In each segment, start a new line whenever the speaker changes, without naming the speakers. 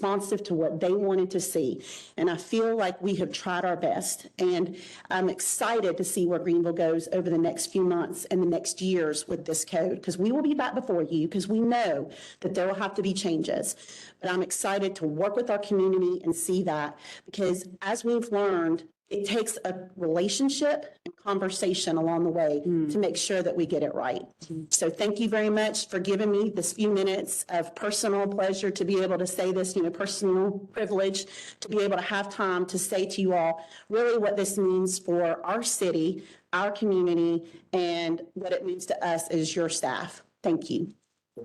responsive to what they wanted to see. And I feel like we have tried our best. And I'm excited to see where Greenville goes over the next few months and the next years with this code, because we will be back before you, because we know that there will have to be changes. But I'm excited to work with our community and see that, because as we've learned, it takes a relationship and conversation along the way to make sure that we get it right. So thank you very much for giving me this few minutes of personal pleasure to be able to say this, you know, personal privilege, to be able to have time to say to you all really what this means for our city, our community, and what it means to us as your staff. Thank you.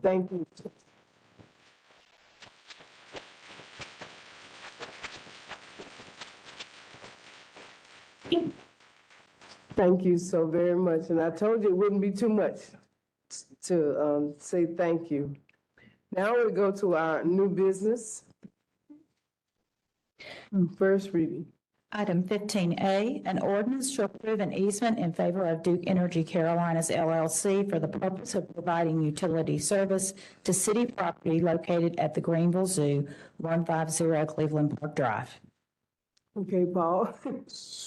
Thank you. Thank you so very much, and I told you it wouldn't be too much to um, say thank you. Now we go to our new business. First reading.
Item fifteen A, an ordinance to approve an easement in favor of Duke Energy Carolinas LLC for the purpose of providing utility service to city property located at the Greenville Zoo, one five zero Cleveland Park Drive.
Okay, Paul.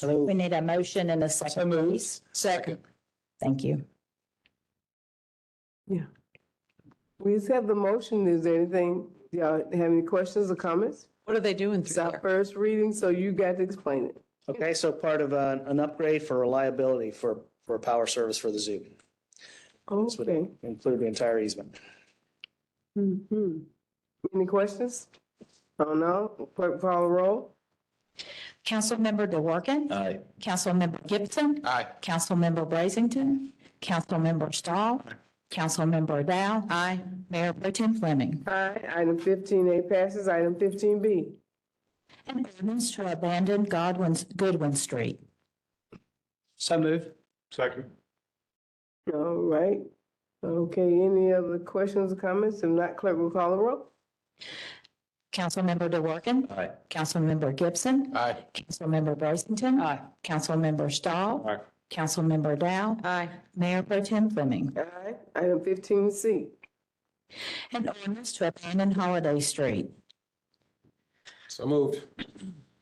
We need a motion and a second, please.
Second.
Thank you.
Yeah. We just have the motion. Is there anything, y'all have any questions or comments?
What are they doing
It's
through
our
there?
first reading, so you got to explain it.
Okay, so part of an, an upgrade for reliability for, for power service for the zoo. This would
Okay.
include the entire easement.
Mhm. Any questions? Oh, no. Clerk call the roll.
Councilmember DeWorke?
Aye.
Councilmember Gibson?
Aye.
Councilmember Brazington? Councilmember Stahl? Councilmember Dow? Aye. Mayor Pro Tem Fleming?
Aye. Item fifteen A passes. Item fifteen B.
An ordinance to abandon Godwin's, Goodwin Street.
So move.
Second.
All right. Okay, any other questions or comments? If not, clerk will call the roll.
Councilmember DeWorke?
Aye.
Councilmember Gibson?
Aye.
Councilmember Brazington? Aye. Councilmember Stahl?
Aye.
Councilmember Dow?
Aye.
Mayor Pro Tem Fleming?
Aye. Item fifteen C.
An ordinance to abandon Holiday Street.
So moved.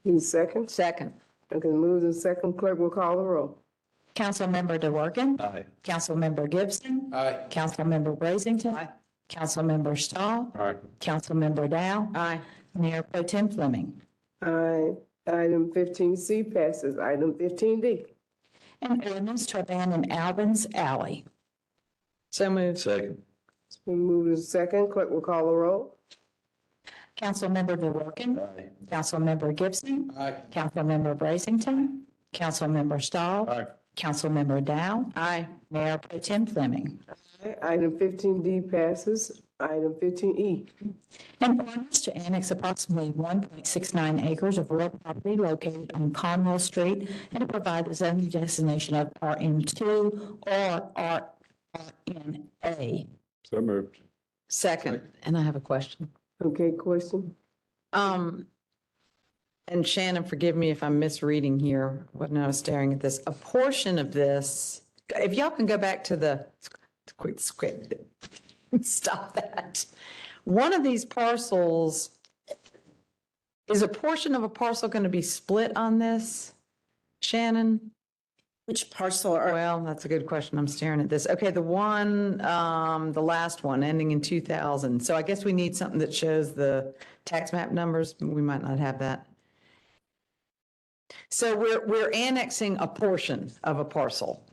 Need a second?
Second.
Okay, moves in second. Clerk will call the roll.
Councilmember DeWorke?
Aye.
Councilmember Gibson?
Aye.
Councilmember Brazington?
Aye.
Councilmember Stahl?
Aye.
Councilmember Dow?
Aye.
Mayor Pro Tem Fleming?
Aye. Item fifteen C passes. Item fifteen D.
An ordinance to abandon Alvin's Alley.
So moved.
Second.
It's been moved in second. Clerk will call the roll.
Councilmember DeWorke?
Aye.
Councilmember Gibson?
Aye.
Councilmember Brazington? Councilmember Stahl?
Aye.
Councilmember Dow?
Aye.
Mayor Pro Tem Fleming?
Item fifteen D passes. Item fifteen E.
An ordinance to annex approximately one point six nine acres of real property located on Conwell Street and to provide the zoning designation of RM two or RNA.
So moved.
Second. And I have a question.
Okay, question?
Um, and Shannon, forgive me if I'm misreading here when I was staring at this. A portion of this, if y'all can go back to the quick script, stop that. One of these parcels, is a portion of a parcel going to be split on this? Shannon?
Which parcel are,
Well, that's a good question. I'm staring at this. Okay, the one, um, the last one ending in two thousand. So I guess we need something that shows the tax map numbers. We might not have that. So we're, we're annexing a portion of a parcel.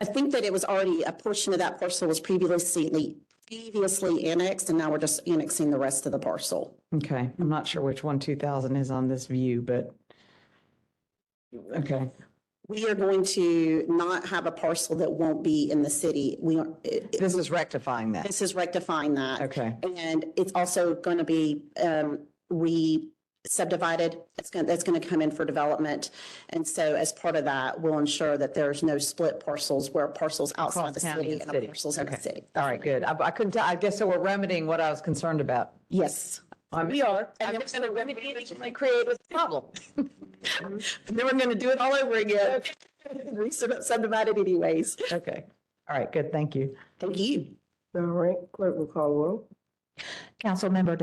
I think that it was already, a portion of that parcel was previously, previously annexed, and now we're just annexing the rest of the parcel.
Okay, I'm not sure which one two thousand is on this view, but. Okay,
We are going to not have a parcel that won't be in the city. We, are- it- it-
this is rectifying that.
this is rectifying that.
Okay,
And it's also going to be um, re-subdivided. It's going, that's going to come in for development. And so as part of that, we'll ensure that there's no split parcels where parcels outside the
Across county
city
and
and
city.
parcels in the
Okay.
city.
all right, good. I, I couldn't, tell- I guess so we're remedying what I was concerned about.
Yes.
We are.
And
I'm
then
just going to remedy it originally created with the problem.
And then we're going to do it all over again. Re-subdivided anyways.
Okay. All right, good, thank you.
Thank you.
All right, clerk will call the roll.
Councilmember